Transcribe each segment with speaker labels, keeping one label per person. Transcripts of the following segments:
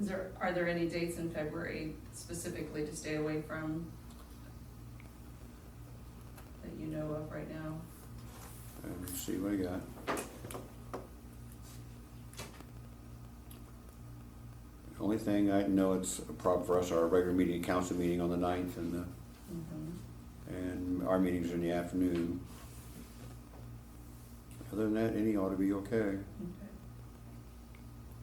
Speaker 1: Is there, are there any dates in February specifically to stay away from? That you know of right now?
Speaker 2: And let's see what I got. The Only thing I know it's a problem for us, our regular meeting, council meeting on the ninth and the,
Speaker 1: Mhm.
Speaker 2: and our meetings in the afternoon. Other than that, any ought to be okay.
Speaker 1: Okay.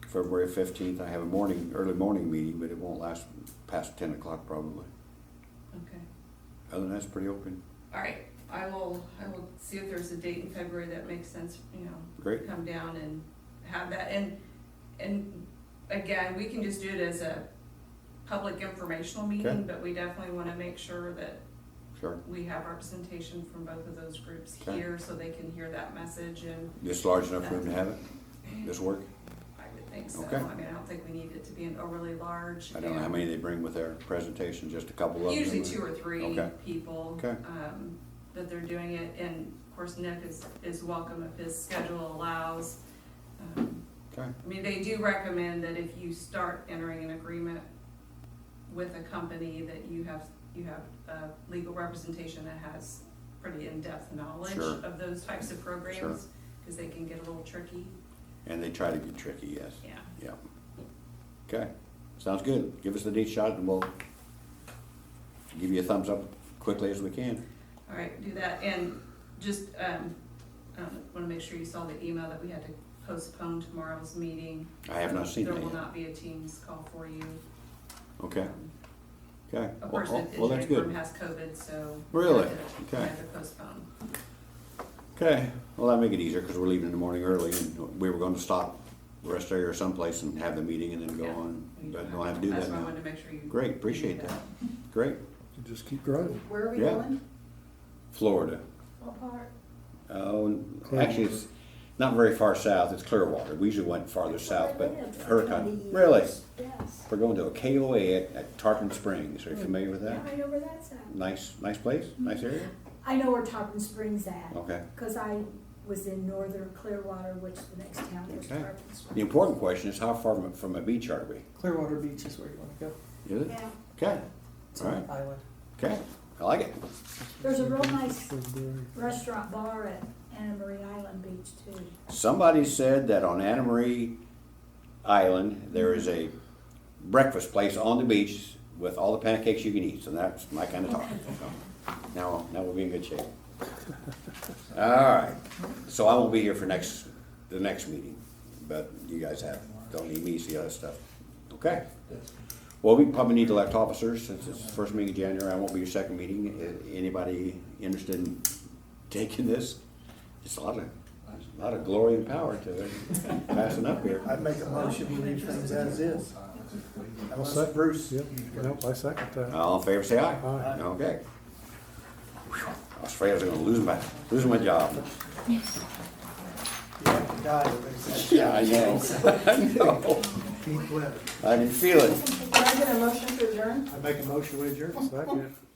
Speaker 2: February fifteenth, I have a morning, early morning meeting, but it won't last past ten o'clock probably.
Speaker 1: Okay.
Speaker 2: Other than that's pretty open.
Speaker 1: All right, I will, I will see if there's a date in February that makes sense, you know,
Speaker 2: Great,
Speaker 1: come down and have that, and, and again, we can just do it as a public informational meeting,
Speaker 2: Okay.
Speaker 1: but we definitely wanna make sure that
Speaker 2: sure.
Speaker 1: we have representation from both of those groups
Speaker 2: Okay.
Speaker 1: here, so they can hear that message, and
Speaker 2: Just large enough room to have it? This work?
Speaker 1: I would think so,
Speaker 2: Okay.
Speaker 1: I mean, I don't think we need it to be an overly large.
Speaker 2: I don't know how
Speaker 1: and-
Speaker 2: many they bring with their presentation, just a couple of them.
Speaker 1: Usually
Speaker 2: or-
Speaker 1: two or three
Speaker 2: Okay.
Speaker 1: people.
Speaker 2: Okay.
Speaker 1: um, That they're doing it, and of course Nick is, is welcome if his schedule allows. Um,
Speaker 2: Okay,
Speaker 1: I mean, they do recommend that if you start entering an agreement with a company, that you have, you have uh, legal representation that has pretty in-depth knowledge
Speaker 2: Sure.
Speaker 1: of those types of programs, because they can get a little tricky,
Speaker 2: and they try to be tricky, yes,
Speaker 1: yeah.
Speaker 2: yeah. Okay, sounds good, give us the neat shot and we'll give you a thumbs up quickly as we can.
Speaker 1: All right, do that, and just, um, I wanna make sure you saw the email that we had to postpone tomorrow's meeting.
Speaker 2: I have not seen
Speaker 1: There
Speaker 2: that
Speaker 1: will
Speaker 2: yet.
Speaker 1: not be a Teams call for you.
Speaker 2: Okay,
Speaker 1: Um,
Speaker 2: okay,
Speaker 1: Of
Speaker 2: well,
Speaker 1: course,
Speaker 2: oh,
Speaker 1: the
Speaker 2: well, that's
Speaker 1: engineering firm
Speaker 2: good.
Speaker 1: has COVID, so. we
Speaker 2: Really?
Speaker 1: had to- we
Speaker 2: Okay.
Speaker 1: had to postpone.
Speaker 2: Okay, well, that make it easier, cause we're leaving in the morning early and we were gonna stop, rest area or someplace and have the meeting and then go
Speaker 1: Yeah.
Speaker 2: on,
Speaker 1: We
Speaker 2: but don't have to do that
Speaker 1: That's why I
Speaker 2: now.
Speaker 1: wanted to make sure you.
Speaker 2: Great, appreciate that, great,
Speaker 3: You Just keep driving.
Speaker 4: Where are we
Speaker 2: Yeah.
Speaker 4: going?
Speaker 2: Florida.
Speaker 4: What part?
Speaker 2: Oh,
Speaker 3: Clearwater.
Speaker 2: actually, it's not very far south, it's Clearwater. We usually went farther south, but Hurricane,
Speaker 4: Hurricane.
Speaker 2: really?
Speaker 4: Yes.
Speaker 2: We're going to a KOA at, at Tarpon Springs, are you familiar with
Speaker 4: Yeah,
Speaker 2: that?
Speaker 4: I know where that's at.
Speaker 2: Nice, nice place, nice area?
Speaker 4: I know where Tarpon Springs at,
Speaker 2: Okay.
Speaker 4: because I was in northern Clearwater, which the next town was
Speaker 2: Okay.
Speaker 4: Tarpon
Speaker 2: The
Speaker 4: Springs.
Speaker 2: important question is how far from, from a beach are we?
Speaker 5: Clearwater Beach is where you want to go.
Speaker 2: Is it?
Speaker 4: Yeah,
Speaker 2: Okay,
Speaker 5: It's on
Speaker 2: Alright.
Speaker 5: an island.
Speaker 2: okay, I like it.
Speaker 4: There's a real nice-
Speaker 3: February.
Speaker 4: restaurant bar at Anna Marie Island Beach too.
Speaker 2: Somebody said that on Anna Marie Island, there is a breakfast place on the beach with all the pancakes you can eat, so that's my kind of talk. So, Now, now we'll be in good shape. All right, so I won't be here for next, the next meeting, but you guys have, don't need me to see other stuff. Okay? Well, we probably need to elect officers, since it's the first meeting in January, I won't be your second meeting. I- Anybody interested in taking this? It's a lot of, a lot of glory and power to it, passing up here.
Speaker 6: I'd make a motion, we leave things as is.
Speaker 3: I'll
Speaker 6: Unless
Speaker 3: second.
Speaker 6: Bruce,
Speaker 3: Yep, nope, I second that.
Speaker 2: All in favor, say aye.
Speaker 3: Aye.
Speaker 2: Okay. Whew, I was afraid I was gonna lose my, lose my job.
Speaker 6: you have to die with things.
Speaker 2: Yeah, I know. I know.
Speaker 6: Keith Webb.
Speaker 2: I can feel it.
Speaker 4: Can I get a motion to adjourn?
Speaker 6: I make a motion, we adjourn.
Speaker 3: Second.